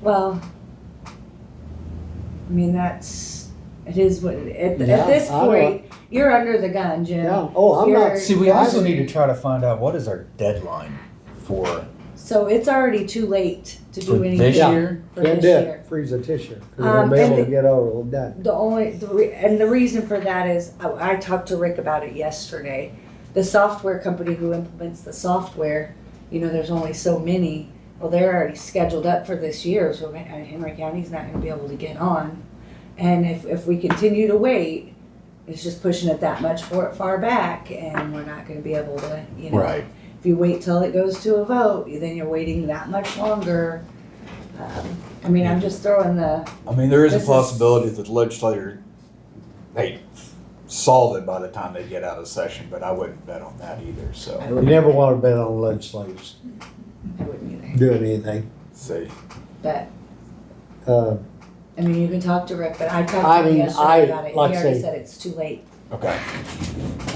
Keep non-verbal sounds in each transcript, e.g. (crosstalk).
Well, I mean, that's, it is what, it- at, Yeah, at this I don't- point, you're under the gun, Jim. Yeah, oh, I'm not, You're- See, we also I- need to try to find out what is our deadline for So it's already too late to for do this anything Yeah. year. for can't this do year. it, freeze a tissue, 'cause we Um, won't be and able to the- get over it done. The only, the re- and the reason for that is, I, I talked to Rick about it yesterday. The software company who implements the software, you know, there's only so many. Well, they're already scheduled up for this year, so Hen- uh, Henry County's not gonna be able to get on. And if, if we continue to wait, it's just pushing it that much for, far back and we're not gonna be able to, you know. If you wait till it goes to a vote, then you're waiting that much longer. Um, I mean, I'm just throwing the, I mean, there is a This is- possibility that the legislature, they solve it by the time they get out of session, but I wouldn't bet on that either, so. You never wanna bet on legislators I wouldn't either. doing anything. See, But, Uh, I mean, you can talk to Rick, but I I talked to him mean, yesterday I- about it, he like I already say- said it's too late. okay,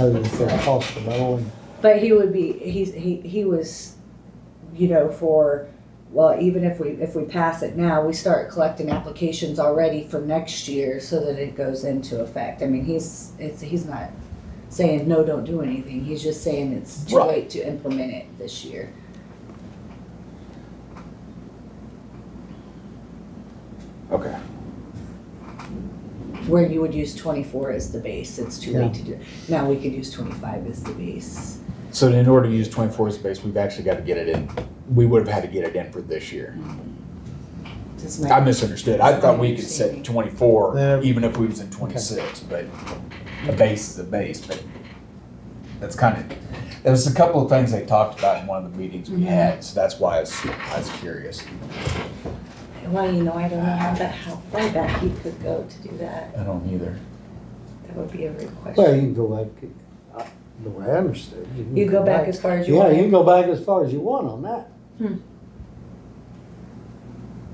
other than for the hospital and But he would be, he's, he, he was, you know, for, well, even if we, if we pass it now, we start collecting applications already for next year so that it goes into effect. I mean, he's, it's, he's not saying, no, don't do anything, he's just saying it's too Right. late to implement it this year. okay. Where you would use twenty-four as the base, it's too Yeah. late to do, now we could use twenty-five as the base. So in order to use twenty-four as a base, we've actually got to get it in. We would have had to get it in for this year. Does my- I misunderstood. I thought we could set Yeah. twenty-four, even if we was in twenty-six, but a base is a base, but that's kind of, there was a couple of things they talked about in one of the meetings we Mhm. had, so that's why I was, I was curious. Well, you know, I don't know how, ba- how far back you could go to do that. I don't either. That would be a real Well, question. you can go back, uh, the way I understood. it, can You go back as far as you Yeah, you can want. go back as far as you want on that.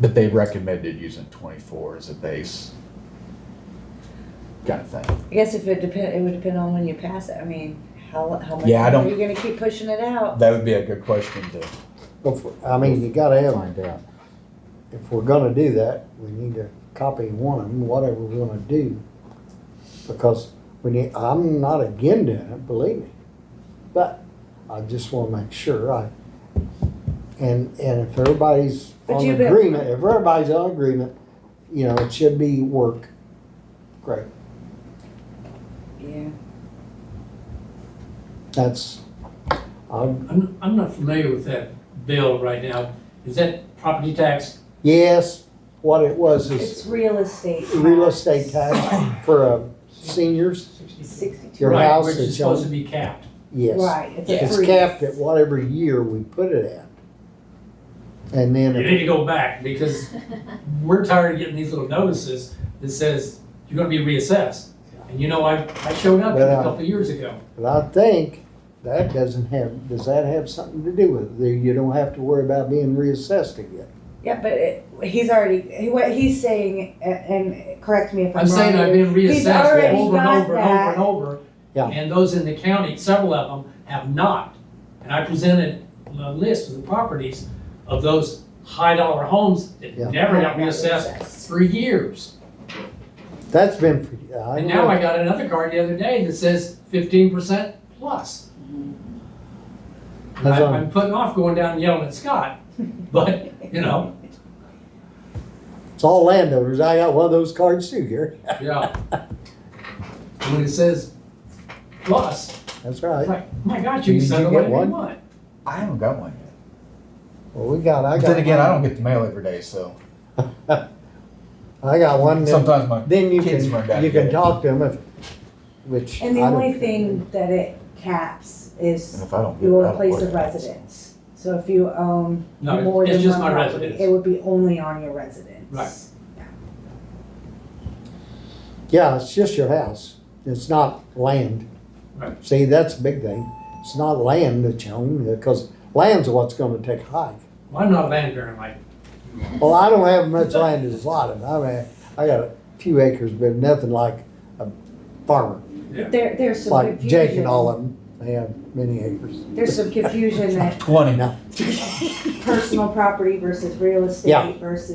But they recommended using twenty-four as a base. Kind of thing. I guess if it depend, it would depend on when you pass it. I mean, how, how much Yeah, I longer are don't- you gonna keep pushing it out? That would be a good question to Go for it. I mean, you gotta have, find out. if we're gonna do that, we need to copy one, whatever we're gonna do. Because we need, I'm not again doing it, believe me. But I just wanna make sure I, and, and if everybody's But on you've been- agreement, if everybody's on agreement, you know, it should be work. Great, Yeah, that's, um, I'm, I'm, I'm not familiar with that bill right now. Is that property tax? yes, what it was is. it's real estate. real tax. estate tax for uh, seniors, Sixty-two. Your Right, house Which is is supposed on- to be capped. yes. Right, it's a It's free. capped at whatever year we put it at. And You then, need if- to go (laughs) back because we're tired of getting these little notices that says you're gonna be reassessed. And you know, I, I showed up But, a uh, couple of years ago. but I think that doesn't have, does that have something to do with it? You don't have to worry about being reassessed again. Yeah, but it, he's already, he- what he's saying, a- and correct me if I'm wrong. I'm saying I've here, been He's reassessed already over and got over and over that. and over. Yeah. And those in the county, several of them have not. And I presented a list of the properties of those high dollar homes that Yeah. never got Haven't got reassessed reassessed. for years. That's been, for- I And now know, I got another card the other day that says fifteen percent plus. And That's I- on- I'm putting off going down and yelling at Scott, (laughs) but, you know, it's all landowners. I got one of those cards too, Gary. yeah. And When it says plus, That's I'm right. like, my gosh, you Did can send you it get whatever one? you want. I haven't got one yet. Well, we got, I But got. then again, I don't get the mail every day, so I got one. that- sometimes my Then you Kids run can, down you to get can it. talk to them if, which. And the I don't only care. thing that it caps and is if I don't get it, I your don't place worry of about it. residence. So if you own No, more it's than just one my property, It residence. would be only on your residence. Right. Yeah, it's just your house. It's not land. Right. See, that's a big thing. It's not land that you own, because land's what's gonna take a hike. Well, I'm not a land baron like, Well, I don't have much land as a lot of, I mean, I got a few acres, but nothing like a farmer, yeah. There, there's some like confusion. Jake and all of them. They have many acres. There's (laughs) some confusion that Twenty. personal property versus real Yeah. estate versus